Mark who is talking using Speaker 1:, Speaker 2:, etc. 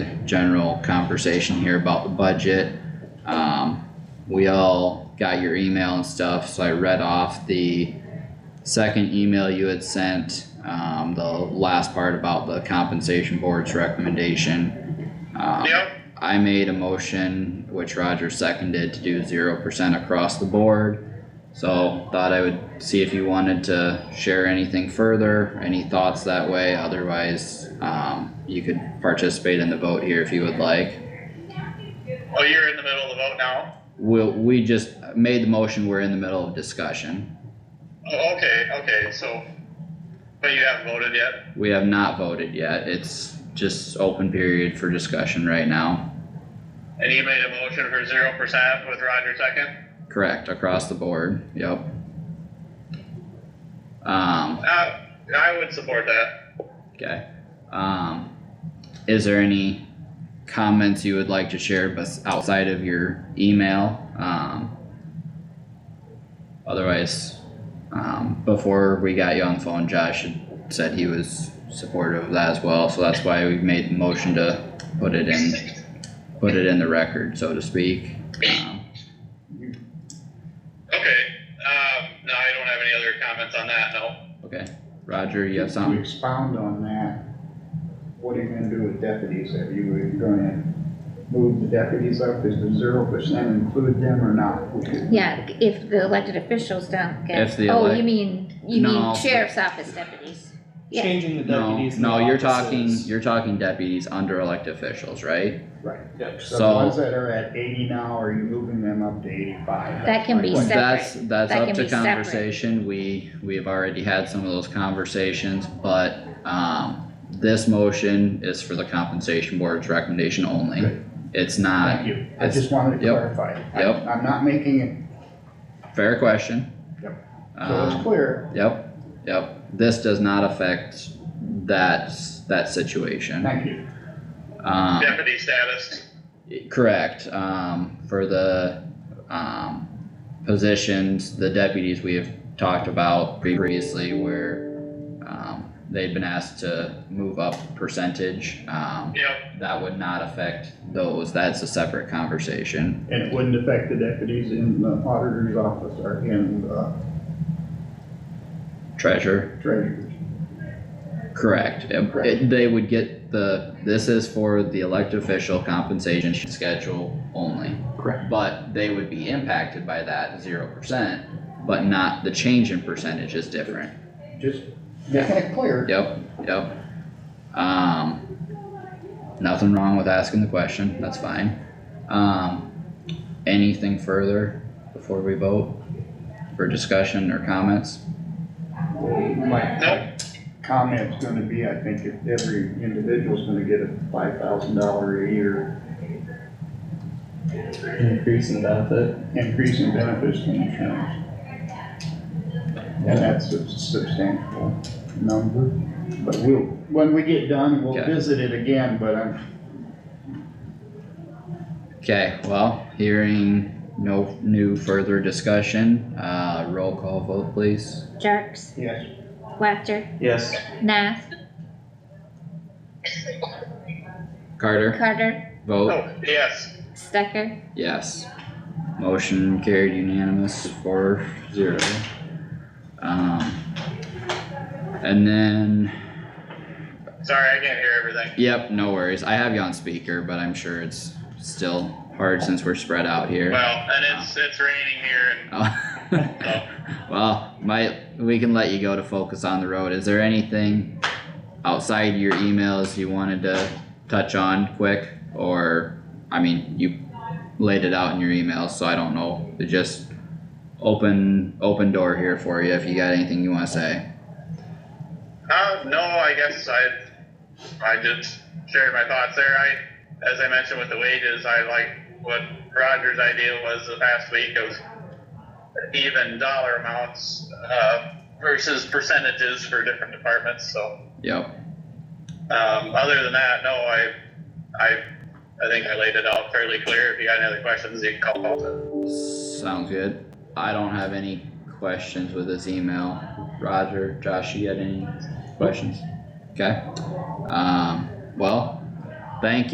Speaker 1: general conversation here about the budget. Um, we all got your email and stuff, so I read off the second email you had sent, um, the last part about the compensation board's recommendation. Um,
Speaker 2: Yep,
Speaker 1: I made a motion, which Roger seconded, to do zero percent across the board. So thought I would see if you wanted to share anything further, any thoughts that way, otherwise, um, you could participate in the vote here if you would like.
Speaker 2: oh, you're in the middle of the vote now?
Speaker 1: We'll, we just made the motion, we're in the middle of discussion.
Speaker 2: Oh, okay, okay, so, but you haven't voted yet?
Speaker 1: We have not voted yet, it's just open period for discussion right now.
Speaker 2: And you made a motion for zero percent with Roger second?
Speaker 1: Correct, across the board, yep. Um,
Speaker 2: Uh, I would support that.
Speaker 1: Okay, um, is there any comments you would like to share bes- outside of your email? Um, otherwise, um, before we got you on the phone, Josh had said he was supportive of that as well, so that's why we made the motion to put it in, put it in the record, so to speak. Um,
Speaker 2: Okay, um, no, I don't have any other comments on that, no.
Speaker 1: Okay, Roger, you have
Speaker 3: To
Speaker 1: something?
Speaker 3: expound on that, what are you gonna do with deputies? Are you are you gonna move the deputies up? Is the zero percent include them or not? We could-
Speaker 4: Yeah, if the elected officials don't get.
Speaker 1: If the
Speaker 4: Oh,
Speaker 1: elec-
Speaker 4: you mean, you
Speaker 1: No.
Speaker 4: mean sheriff's office deputies. Yeah.
Speaker 5: Changing the
Speaker 1: No,
Speaker 5: deputies. and
Speaker 1: no,
Speaker 5: the
Speaker 1: you're talking,
Speaker 5: offices.
Speaker 1: you're talking deputies under elected officials, right?
Speaker 3: Right.
Speaker 5: Yep.
Speaker 3: So the
Speaker 1: So-
Speaker 3: ones that are at eighty now, are you moving them up to eighty-five?
Speaker 4: That can be
Speaker 3: That's my point.
Speaker 1: That's, that's
Speaker 4: That
Speaker 1: up
Speaker 4: can
Speaker 1: to
Speaker 4: be separate.
Speaker 1: conversation, we, we have already had some of those conversations, but, um, this motion is for the compensation board's recommendation only.
Speaker 3: Good.
Speaker 1: It's not,
Speaker 3: Thank you. I
Speaker 1: it's-
Speaker 3: just wanted to
Speaker 1: yep.
Speaker 3: clarify. I-
Speaker 1: Yep.
Speaker 3: I'm not making it,
Speaker 1: fair question.
Speaker 3: Yep. so it's
Speaker 1: Um,
Speaker 3: clear,
Speaker 1: yep, yep, this does not affect that, that situation,
Speaker 3: thank you.
Speaker 1: um.
Speaker 2: Deputy status,
Speaker 1: Correct, um, for the, um, positions, the deputies we have talked about previously where, um, they've been asked to move up percentage, um,
Speaker 2: yep,
Speaker 1: that would not affect those, that's a separate conversation.
Speaker 3: And it wouldn't affect the deputies in the auditor's office or in the
Speaker 1: Treasure,
Speaker 3: treasurer's.
Speaker 1: correct, It-
Speaker 3: Correct.
Speaker 1: they would get the, this is for the elected official compensation schedule only.
Speaker 3: Correct.
Speaker 1: But they would be impacted by that zero percent, but not, the change in percentage is different.
Speaker 3: Just making it clear.
Speaker 1: Yep, yep. Um, nothing wrong with asking the question, that's fine. Um, anything further before we vote? For discussion or comments?
Speaker 3: My
Speaker 2: Nope.
Speaker 3: Comment's gonna be, I think, if every individual's gonna get a five thousand dollar a year
Speaker 5: Increase in benefit.
Speaker 3: increase in benefits and insurance. And that's a substantial number, but we'll, when we get done, we'll
Speaker 1: Okay.
Speaker 3: visit it again, but I'm,
Speaker 1: Okay, well, hearing no new further discussion, uh, roll call vote please.
Speaker 4: Jerks,
Speaker 3: yes,
Speaker 4: Wactor,
Speaker 5: Yes.
Speaker 4: Nath,
Speaker 1: Carter,
Speaker 4: Carter,
Speaker 1: vote,
Speaker 2: oh, yes,
Speaker 4: Stecker,
Speaker 1: yes. Motion carried unanimous four zero. Um, and then
Speaker 2: sorry, I can't hear everything.
Speaker 1: Yep, no worries. I have you on speaker, but I'm sure it's still hard since we're spread out here.
Speaker 2: Well, and it's, it's raining here and,
Speaker 1: Oh.
Speaker 2: so,
Speaker 1: well, my we can let you go to focus on the road. Is there anything outside your emails you wanted to touch on quick, or I mean, you laid it out in your emails, so I don't know. It just open open door here for you if you got anything you want to say.
Speaker 2: uh, no, I guess I, I just shared my thoughts there. I, as I mentioned with the wages, I like what Roger's idea was the past week of even dollar amounts, uh, versus percentages for different departments, so.
Speaker 1: Yep.
Speaker 2: Um, other than that, no, I, I, I think I laid it out fairly clear. If you got any other questions, you can call.
Speaker 1: Sounds good. I don't have any questions with this email. Roger, Josh, you got any questions? Okay. Um, well, thank you.